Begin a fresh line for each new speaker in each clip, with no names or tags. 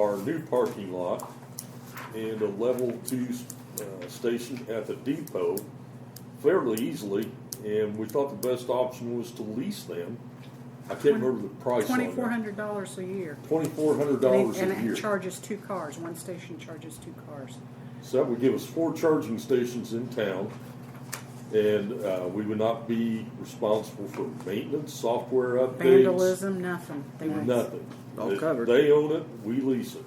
our new parking lot and a level two uh, station at the depot fairly easily, and we thought the best option was to lease them. I can't remember the price on
Twenty-four
it.
hundred dollars a year.
Twenty-four hundred
And it-
dollars a
And it
year.
charges two cars, one station charges two cars.
So that would give us four charging stations in town, and uh, we would not be responsible for maintenance, software updates.
Vandalism, nothing. They were-
Nothing.
All covered.
They own it, we lease it.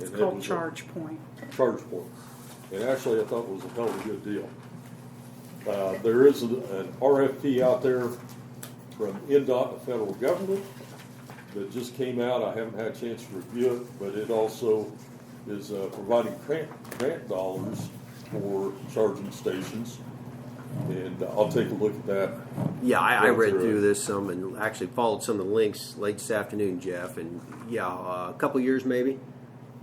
It's
And that
called
was a-
Charge Point.
charge for. it. And actually, I thought it was a hell of a good deal. Uh, there is an, an RFP out there from NDOT, the federal government, that just came out. I haven't had a chance to review it, but it also is, uh, providing grant, grant dollars for charging stations. And I'll take a look at that.
Yeah, I, I
Go
read
through it.
through this some and actually followed some of the links late this afternoon, Jeff. And yeah, uh, a couple years maybe.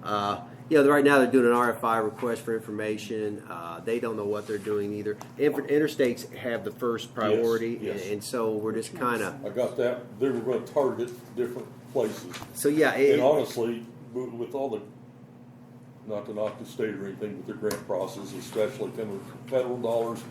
Uh, yeah, right now they're doing an RFI request for information. Uh, they don't know what they're doing either. Inter- interstates have the first priority,
yes.
And, and so we're just
Makes
kind of
sense.
I got that. They were gonna target different places.
so yeah. It,
And honestly, with with all the, not to knock the state or anything, but the grant process, especially coming from federal dollars,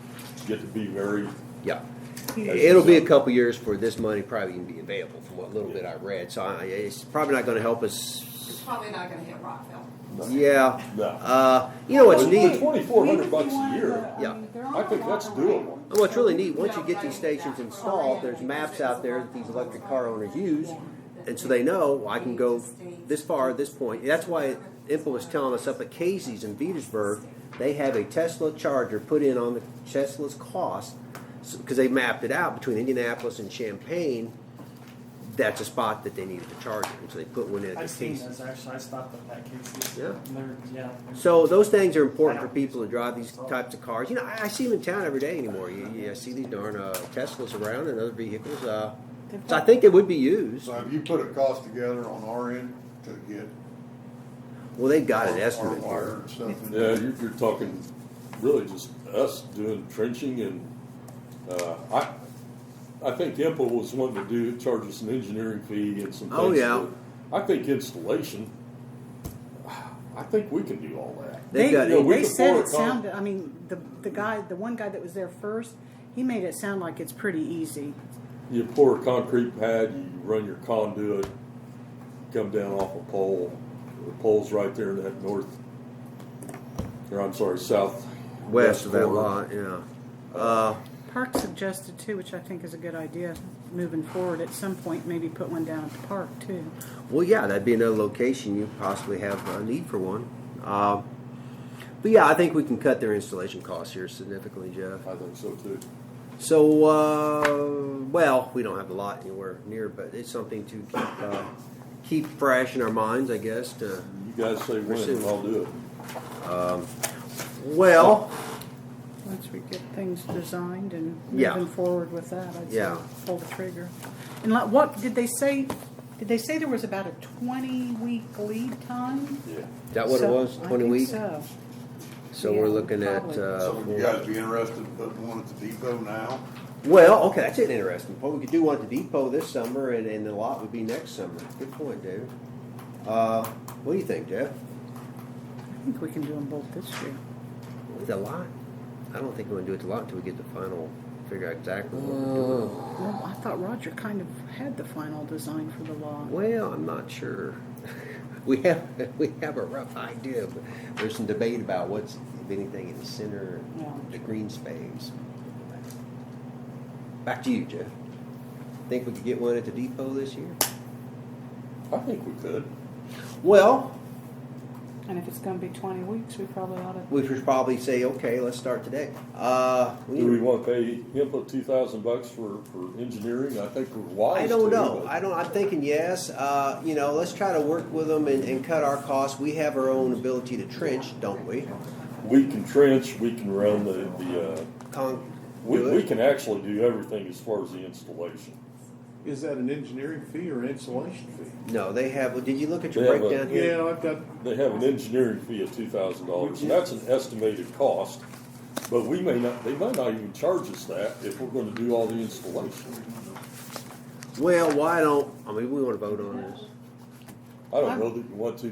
get to be very,
Yeah.
That's
It'll be a
exactly-
couple years for this money probably can be available from what little bit I read. So I, it's probably not going to help us.
It's probably not gonna hit Rockville.
Yeah.
No.
Uh, you know what's
Well, it's
neat?
Twenty-four hundred
Even if you
bucks a
wanted
year,
to, I
Yeah.
mean, they're
I
on
think
a
that's
lot of land.
doable.
And what's really neat, once you get these stations installed, there's maps out there that these electric car owners use, and so they know well, I can go this far, this point. That's why Impel was telling us up at Casey's in Petersburg, they have a Tesla charger put in on the Tesla's cost because they mapped it out between Indianapolis and Champaign. That's a spot that they needed to charge, it, and so they put one in at
I've
the
seen
Casey's.
those actually. I stopped at that Casey's.
Yeah.
And they're- yeah.
So those things are important for people to drive these types of cars. You know, I, I see them in town every day anymore. You, you I see these darn uh, Teslas around and other vehicles. Uh, so I think they would be used.
So have you put a cost together on our end to get?
Well, they've got an
our-
estimate
Our wire
here.
and stuff. in
yeah,
there?
you're, you're talking really just us doing trenching and, uh, I, I think Impel was wanting to do, charge us an engineering fee and some things.
Oh, yeah.
but I think installation, I think we can do all that.
They've
They,
got-
Yeah, we
they
could
said
pour a
it
con-
sounded, I mean, the, the guy, the one guy that was there first, he made it sound like it's pretty easy.
You pour a concrete pad, you run your conduit, come down off a pole. The pole's right there in that north, or I'm sorry, south.
West of that
corner.
lot, yeah. Uh,
Park suggested too, which I think is a good idea, moving forward, at some point, maybe put one down at the park too.
well, yeah, that'd be another location you possibly have a need for one. Uh, but yeah, I think we can cut their installation costs here significantly, Jeff.
I think so too.
So, uh, well, we don't have a lot anywhere near, but it's something to keep, uh, keep fresh in our minds, I guess. To
You guys say when,
Pursue.
and I'll do it.
well,
Once we get things designed and
Yeah.
moving forward with that, I'd say
Yeah.
pull the trigger. And like, what, did they say, did they say there was about a twenty-week lead time?
Yeah.
is that what it
So-
was?
I
Twenty
think
weeks.
so.
So we're
Yeah,
looking at.
probably.
Uh,
So would you guys be interested in putting one at the depot now?
well, okay, that's an interesting point. We could do one at the depot this summer, and, and the lot would be next summer. Good point, David. Uh, what do you think, Jeff?
I think we can do them both this year.
With a lot, I don't think we're gonna do it a lot until we get the final, figure out exactly. what we're doing.
Well, I thought Roger kind of had the final design for the law.
Well, I'm not sure. We have, we have a rough idea, but there's some debate about what's, if anything, in the center,
Yeah.
the green space. Back to you, Jeff. Think we could get one at the depot this year?
I think we could.
Well,
And if it's gonna be twenty weeks, we probably ought to.
we should probably say, okay, let's start today. Uh,
Do we want to pay Impel two thousand bucks for, for engineering? I think we're wise.
I don't
to,
know.
but-
I don't. I'm thinking yes. Uh, you know, let's try to work with them and, and cut our costs. We have our own ability to trench, don't we?
We can trench, we can run the, the, uh,
Con-
we,
do it.
we can actually do everything as far as the installation.
Is that an engineering fee or an installation fee?
No, they have. well, Did you look at your
They have a-
breakdown here?
Yeah, I've got,
They have an engineering fee of two thousand dollars, and that's an estimated cost, but we may not, they might not even charge us that if we're gonna do all the installation.
Well, why don't, I mean, we wanna vote on this.
I don't
I'm-
know that you want to